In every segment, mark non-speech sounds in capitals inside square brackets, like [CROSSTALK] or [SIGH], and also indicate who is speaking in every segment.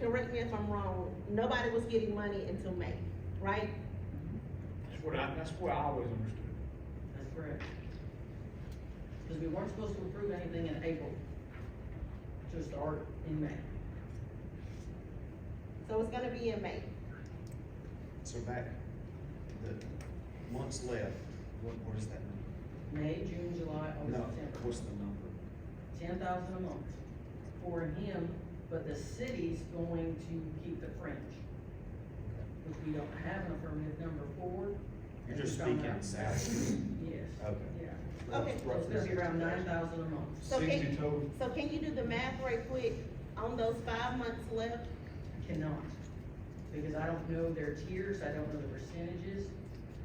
Speaker 1: correct me if I'm wrong, nobody was getting money until May, right?
Speaker 2: That's what I, that's what I always understood.
Speaker 3: That's correct. Because we weren't supposed to approve anything in April, to start in May.
Speaker 1: So it's gonna be in May.
Speaker 4: So back, the months left, what, what is that number?
Speaker 3: May, June, July,
Speaker 4: No,
Speaker 3: August, September.
Speaker 4: what's the number?
Speaker 3: Ten thousand a month for him, but the city's going to keep the fringe, which we don't have an affirmative number for.
Speaker 4: You're
Speaker 3: It's
Speaker 4: just
Speaker 3: around
Speaker 4: speaking
Speaker 3: that.
Speaker 4: salary.
Speaker 3: [LAUGHS] Yes.
Speaker 4: Okay.
Speaker 3: Yeah.
Speaker 1: Okay.
Speaker 3: So it's gonna be around nine thousand a month.
Speaker 1: So can-
Speaker 5: 60 total.
Speaker 1: So can you do the math right quick on those five months left?
Speaker 3: Cannot, because I don't know their tiers, I don't know the percentages.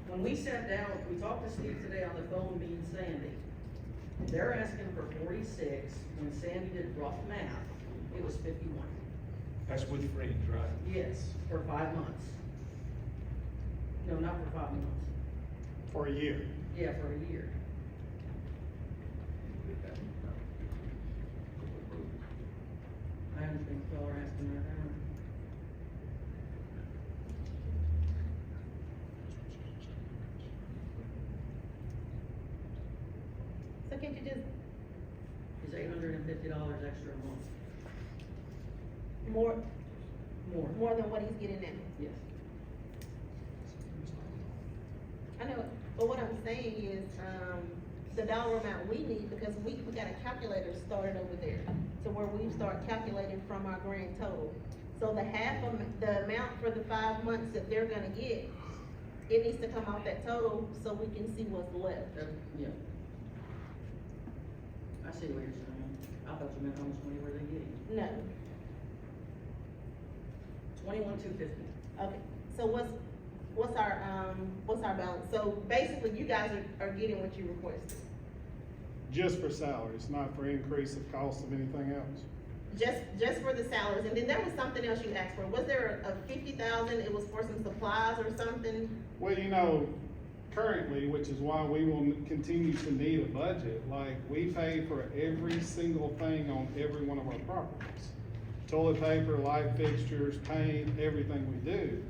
Speaker 3: When we sat down, we talked to Steve today on the phone, me and Sandy. They're asking for forty-six, when Sandy did rough math, it was fifty-one.
Speaker 2: That's with friends, right?
Speaker 3: Yes, for five months. No, not for five months,
Speaker 5: For a year.
Speaker 3: yeah, for a year. I haven't been y'all are asking that, I don't.
Speaker 1: So can you just
Speaker 3: It's eight hundred and fifty dollars extra a month,
Speaker 1: more,
Speaker 3: more,
Speaker 1: more than what he's getting now?
Speaker 3: yes.
Speaker 1: I know, but what I'm saying is, um, the dollar amount we need, because we, we got a calculator started over there, to where we start calculating from our grand total. So the half of, the amount for the five months that they're gonna get, it needs to come off that total, so we can see what's left.
Speaker 3: That, yeah. I see what you're saying, I thought you meant how much money were they getting,
Speaker 1: No,
Speaker 3: twenty-one, two fifty.
Speaker 1: okay, so what's, what's our, um, what's our balance? So basically, you guys are, are getting what you requested,
Speaker 5: Just for salaries, not for increase of cost of anything else.
Speaker 1: just, just for the salaries, and then there was something else you asked for, was there a fifty thousand, it was for some supplies or something?
Speaker 5: Well, you know, currently, which is why we will continue to need a budget, like, we pay for every single thing on every one of our properties. Toilet paper, light fixtures, paint, everything we do.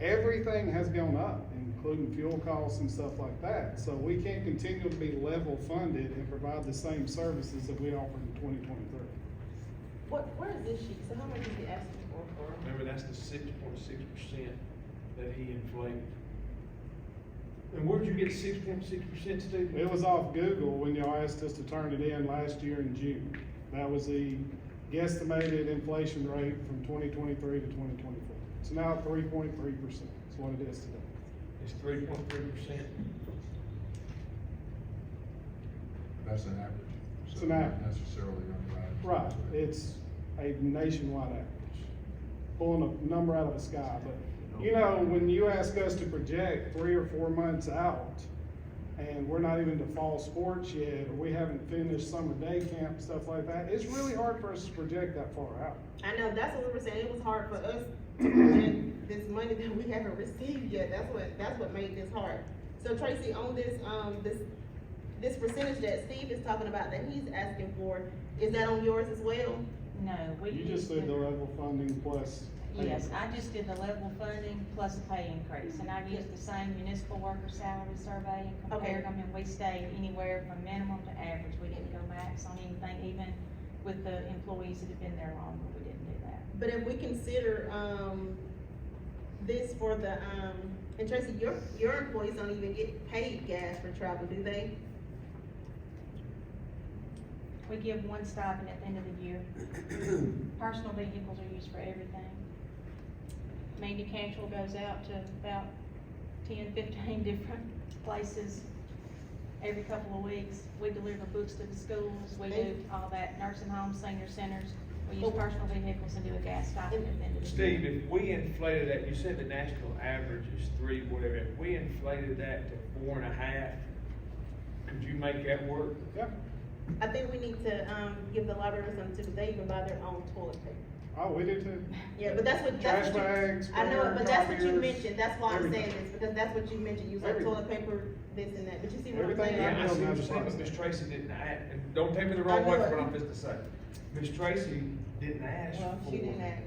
Speaker 5: Everything has gone up, including fuel costs and stuff like that. So we can't continue to be level funded and provide the same services that we offered in twenty twenty-three.
Speaker 1: What, where is this sheet? So how much is he asking for for?
Speaker 2: Remember, that's the six point six percent that he inflated. And where'd you get six point six percent, Steve?
Speaker 5: It was off Google when y'all asked us to turn it in last year in June. That was the guesstimated inflation rate from twenty twenty-three to twenty twenty-four. It's now three point three percent, is what it is today.
Speaker 2: It's three point three percent.
Speaker 6: That's an average.
Speaker 5: It's
Speaker 6: So
Speaker 5: an
Speaker 6: not
Speaker 5: average.
Speaker 6: Necessarily underwriting.
Speaker 5: Right, it's a nationwide average, pulling a number out of the sky, but, you know, when you ask us to project three or four months out, and we're not even to fall sports yet, or we haven't finished summer day camp, stuff like that, it's really hard for us to project that far out.
Speaker 1: I know, that's what we were saying, it was hard for us to get this money that we haven't received yet, that's what, that's what made this hard. So Tracy, on this, um, this, this percentage that Steve is talking about that he's asking for, is that on yours as well?
Speaker 7: No, we.
Speaker 5: You just
Speaker 7: did
Speaker 5: said the level funding plus.
Speaker 7: Yes, I just did the level funding plus a pay increase, and I've used the same municipal worker salary survey and
Speaker 1: Okay.
Speaker 7: compared them, and we stayed anywhere from minimum to average. We didn't go max on anything, even with the employees that have been there longer, we didn't do that.
Speaker 1: But if we consider, um, this for the, um, and Tracy, your, your employees don't even get paid gas for travel, do they?
Speaker 7: We give one stipend at the end of the year. Personal vehicles are used for everything. Manufacturer goes out to about ten, fifteen [LAUGHS] different places every couple of weeks. We deliver books to the schools, we do all that, nursing homes, senior centers. We use personal vehicles and do a gas stipend at the end of the year.
Speaker 2: Steve, if we inflated that, you said the national average is three, whatever, if we inflated that to four and a half, could you make that work?
Speaker 5: Yeah,
Speaker 1: I think we need to, um, give the library something too, they even buy their own toilet paper.
Speaker 5: oh, we do too.
Speaker 1: Yeah, but that's what, that's
Speaker 5: Trash
Speaker 1: what you,
Speaker 5: bags,
Speaker 1: I know, it, but that's what you
Speaker 5: copiers,
Speaker 1: mentioned, that's why I'm saying
Speaker 5: everything.
Speaker 1: this, because that's what you mentioned, you said
Speaker 5: Everything.
Speaker 1: toilet paper, this and that, but you see what I'm
Speaker 5: Everything
Speaker 1: saying?
Speaker 2: Yeah, I see what you're saying,
Speaker 5: Right.
Speaker 2: but Ms. Tracy didn't ask, and don't take me the wrong way for what I'm just to say. Ms. Tracy didn't ask
Speaker 1: Well,
Speaker 2: for.
Speaker 1: she didn't ask.